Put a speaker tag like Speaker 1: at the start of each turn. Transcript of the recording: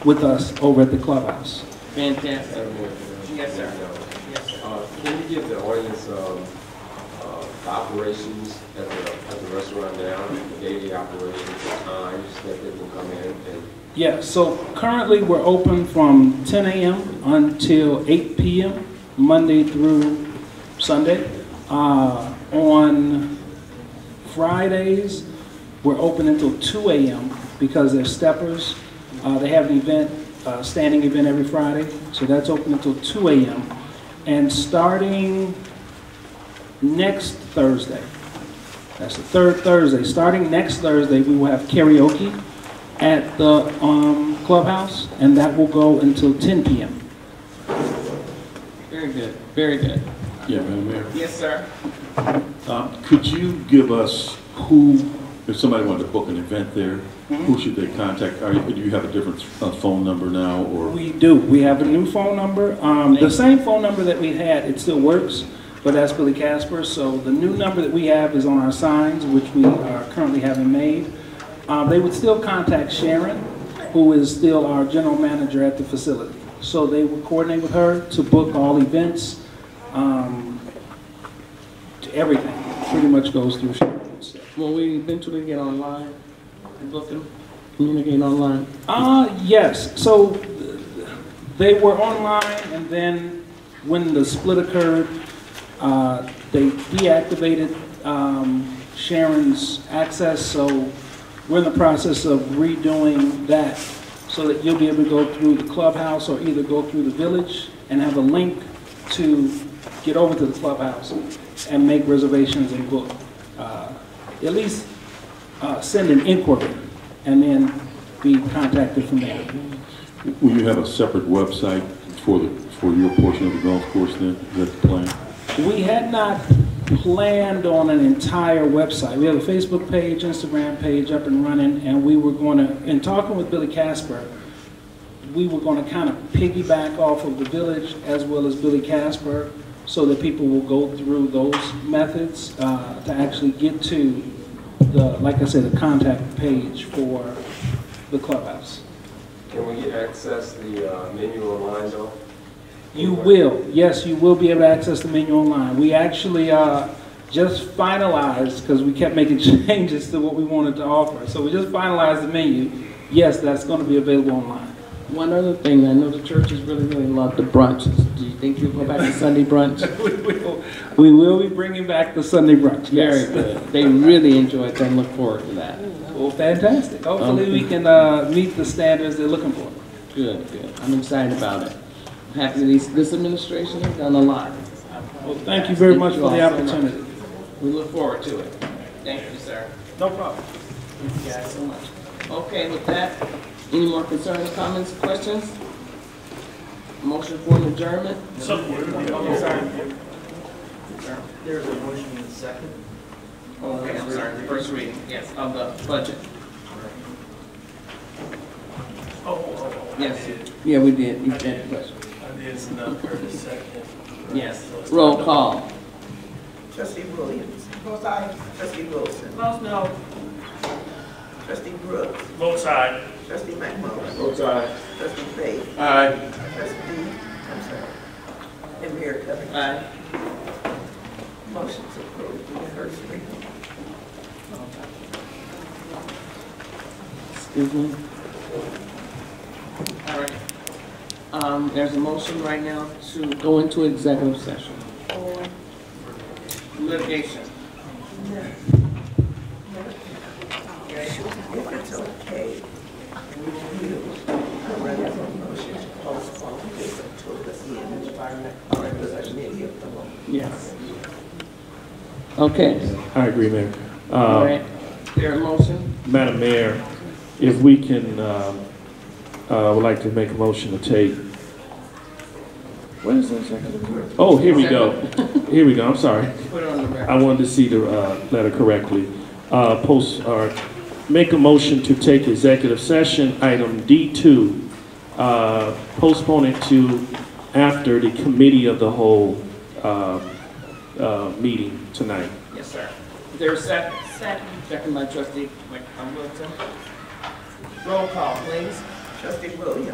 Speaker 1: with us over at the clubhouse.
Speaker 2: Fantastic. Yes,
Speaker 3: Yes,
Speaker 2: sir. Yes, sir.
Speaker 3: Uh, Can you give the audience um, uh, the operations at the, at the restaurant now, the daily operations, the times that they can come in and
Speaker 1: Yeah, so currently we're open from 10 a.m. until 8 p.m., Monday through Sunday. Uh, on Fridays, we're open until 2 a.m. because they're steppers. Uh, they have an event, uh, standing event every Friday, so that's open until 2 a.m. And starting next Thursday, that's the third Thursday, starting next Thursday, we will have karaoke at the um, clubhouse, and that will go until 10 p.m.
Speaker 2: Very good, very good.
Speaker 4: Yeah, Madam Mayor.
Speaker 2: Yes, sir.
Speaker 4: Uh, Could you give us who, if somebody wanted to book an event there, who should they contact? Are you- Do you have a different uh, phone number now, or?
Speaker 1: We do. We have a new phone number. Um, the same phone number that we had, it still works, but that's Billy Casper. So the new number that we have is on our signs, which we are currently having made. Uh, they would still contact Sharon, who is still our general manager at the facility. So they would coordinate with her to book all events. Um, everything pretty much goes through Sharon. So-
Speaker 2: Will we eventually get online and book them, communicate online?
Speaker 1: Uh, yes, so th- they were online, and then when the split occurred, uh, they deactivated um, Sharon's access, so we're in the process of redoing that, so that you'll be able to go through the clubhouse, or either go through the village and have a link to get over to the clubhouse and make reservations and book. Uh, At least uh, send an inquiry, and then be contacted from there.
Speaker 4: Will you have a separate website for the, for your portion of the golf course then? Is that the plan?
Speaker 1: We had not planned on an entire website. We have a Facebook page, Instagram page up and running, and we were going to, in talking with Billy Casper, we were going to kind of piggyback off of the village as well as Billy Casper, so that people will go through those methods uh, to actually get to the, like I said, the contact page for the clubhouse.
Speaker 3: can we get access the uh, menu online though?
Speaker 1: You will, yes, you will be able to access the menu online. We actually uh, just finalized, because we kept making changes to what we wanted to offer, so we just finalized the menu. Yes, that's going to be available online.
Speaker 2: One other thing, I know the churches really, really love the brunches. Do you think you'll go back to Sunday brunch?
Speaker 1: We will, we will be bringing back the Sunday brunch,
Speaker 2: Very
Speaker 1: yes.
Speaker 2: good. They really enjoy it, and look forward to that.
Speaker 1: Well, fantastic. Hopefully, we can uh, meet the standards they're looking for.
Speaker 2: Good, good. I'm excited about it. I'm Happy that these- this administration has done a lot.
Speaker 1: Well, thank you very much for the opportunity.
Speaker 2: We look forward to it. Thank you, sir.
Speaker 1: No problem.
Speaker 2: Thank you guys so much. Okay, with that, any more concerns, comments, questions? Motion for an adjournment? Oh, sorry.
Speaker 5: There's a motion in second.
Speaker 2: Okay, Oh, I'm sorry, first reading, yes, of the budget.
Speaker 5: Oh, oh, oh, I
Speaker 2: Yes,
Speaker 5: did,
Speaker 2: yeah, we did, you did, but-
Speaker 5: I did, it's not for the second.
Speaker 2: yes. Roll call.
Speaker 5: Trustee Williams. Both sides. Trustee Wilson.
Speaker 2: Votes no.
Speaker 5: Trustee Brooks. Both sides. Trustee McMillan.
Speaker 3: Both sides.
Speaker 5: Trustee Faith.
Speaker 2: Aye.
Speaker 5: Trustee, I'm sorry. And Mayor Covington.
Speaker 2: Aye.
Speaker 5: Motion's approved in first reading.
Speaker 2: Excuse me. All right. Um, there's a motion right now to go into executive session. Litigation.
Speaker 5: If it's okay, would you, I run out of motion to postpone this until the end of our next, our regular meeting of the month?
Speaker 2: Yes. Okay,
Speaker 6: I agree, Mayor.
Speaker 2: all
Speaker 6: Uh,
Speaker 2: right. There a motion?
Speaker 6: Madam Mayor, if we can, um, uh, would like to make a motion to take, where is the executive? Oh, here we go. Here we go, I'm sorry.
Speaker 2: Put it on the record.
Speaker 6: I wanted to see the uh, letter correctly. Uh, Post, or make a motion to take executive session, item D2, uh, postpone it to after the committee of the whole uh, uh, meeting tonight.
Speaker 2: Yes, sir. There a second? Second. Second by trustee Mike Hamilton. Roll call, please.
Speaker 5: Trustee Williams.